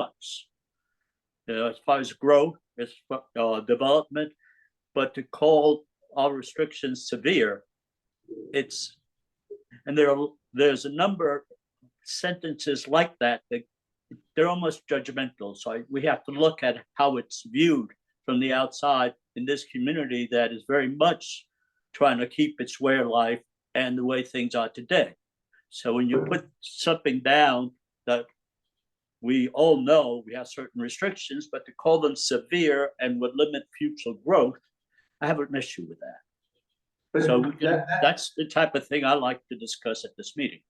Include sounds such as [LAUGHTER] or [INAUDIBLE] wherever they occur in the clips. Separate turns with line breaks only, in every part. wants. You know, as far as growth, as far, uh, development, but to call our restrictions severe, it's, and there are, there's a number of sentences like that that they're almost judgmental. So I- we have to look at how it's viewed from the outside in this community that is very much trying to keep its way of life and the way things are today. So when you put something down that we all know we have certain restrictions, but to call them severe and would limit future growth, I have an issue with that.
But
So we can,
that- that-
that's the type of thing I like to discuss at this meeting.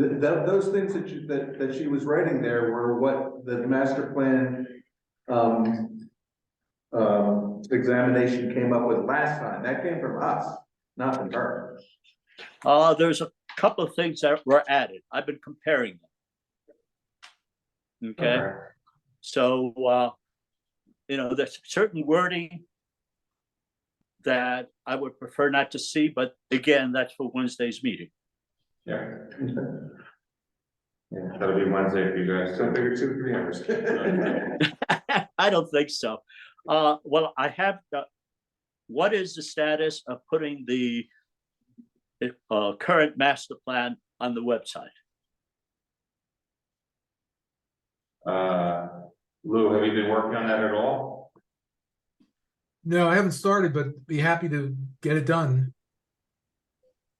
th- th- those things that you, that, that she was writing there were what the master plan, um, um, examination came up with last time. That came from us, not from her.
Uh, there's a couple of things that were added. I've been comparing them. Okay, so, uh, you know, there's certain wording that I would prefer not to see, but again, that's for Wednesday's meeting.
[LAUGHS] Yeah,
Yeah.
that'll be Wednesday for you guys.
So figure two, three [LAUGHS] hours.
[LAUGHS] I don't think so. Uh, well, I have, the- what is the status of putting the uh, current master plan on the website?
Uh, Lou, have you been working on that at all?
No, I haven't started, but be happy to get it done.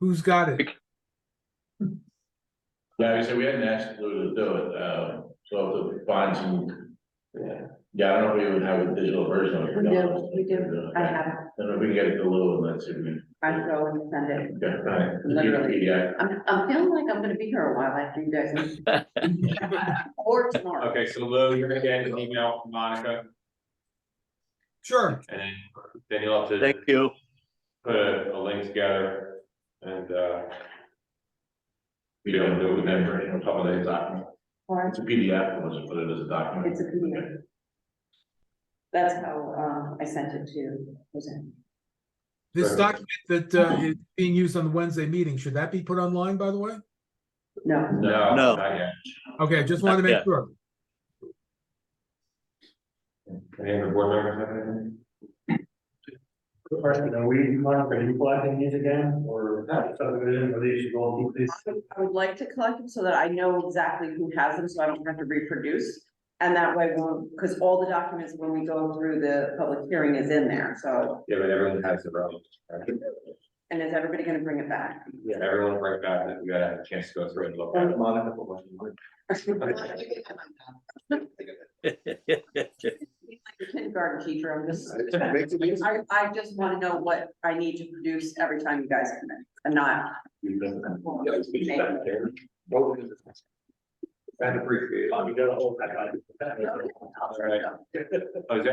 Who's got it?
Yeah, so we hadn't asked Lou to do it, uh, so to find some. Yeah, yeah, I don't know if we even have a digital version of it.
We do, we do, I have, it.
Then if we can get it to Lou and let's see. if we
I
can-
go and send it.
Yeah, right.
Literally.
Yeah.
I'm, I'm feeling like I'm gonna be here a while after you [LAUGHS] guys. Or tomorrow.
Okay, so Lou, you're gonna get an email from Monica
Sure.
and then, then you'll have
Thank
to
you.
put a, a link together and, uh, we don't do it then, you know, top of the document.
Or
It's a PDF, it wasn't put it as a document.
It's a PDF. That's how, um, I sent it to Roseanne.
This
Sure.
document that uh, is being used on the Wednesday meeting, should that be put online, by the way?
No,
No,
No.
not yet.
Okay, just wanted to
Yeah.
make sure.
Any other board members have anything?
Good question, are we planning for new planting these again, or subdivision, or these should all be
I would- I would like to collect them so that I know exactly who has them, so I don't have to reproduce. And that way, won't because all the documents, when we go through the public hearing is in there, so,
Yeah, but everyone has their own. right?
and is everybody gonna bring it back?
Yeah, everyone right back, we gotta have a chance to go through and look at it.
Monica, for what you want.
[LAUGHS] Kindergarten teacher, I'm just. [LAUGHS] I, I just wanna know what I need to produce every time you guys come in, and not.
I'd appreciate it.
Oh, you got a whole pack on it.
Jose, do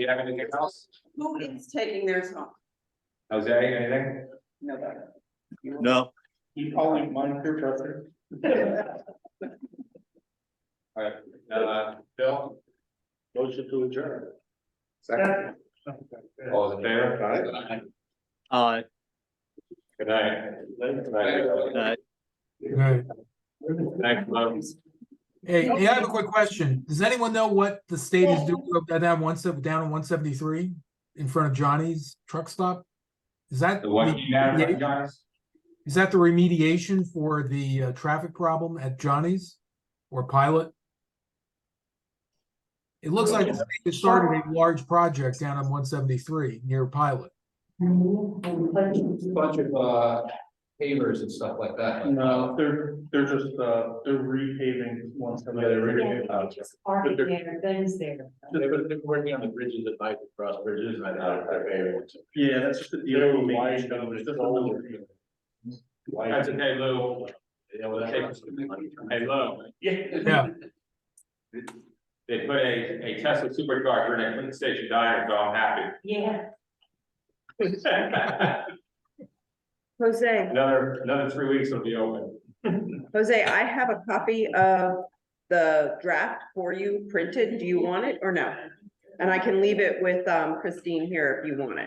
you have anything else?
Who is taking theirs home?
Jose, anything?
Nobody.
[LAUGHS] No,
You calling Monica Trusser?
All right, uh, Bill,
Motion to adjourn.
second, all in favor?
uh,
Good night. Good
uh,
night.
All right.
Thanks, love.
Hey, hey, I have a quick question. Does anyone know what the state is doing up- down one sev- down on one seventy-three in front of Johnny's truck stop? Is that,
The one you have, right, Johnny?
is that the remediation for the uh, traffic problem at Johnny's or Pilot? It looks like the state has started a large project down on one seventy-three near Pilot.
bunch of uh pavers and stuff like that. Uh,
uh,
No, they're, they're just, uh, they're repaving once. Yeah, they're repaving.
Parking there, things there.
They were, they were working on the bridges at night, cross bridges, and I thought they're very.
Yeah, that's just. the-
They're wide, though, it's just a little-
That's okay, Lou.
Yeah, well, that's-
Hey, Lou,
Yeah,
they put a, a Tesla supercharger in a Clinton Station diner, so I'm happy.
Yeah.
[LAUGHS]
Jose,
Another, another three weeks will be open.
Jose, I have a copy of the draft for you printed. Do you want it or no? And I can leave it with um, Christine here if you want it.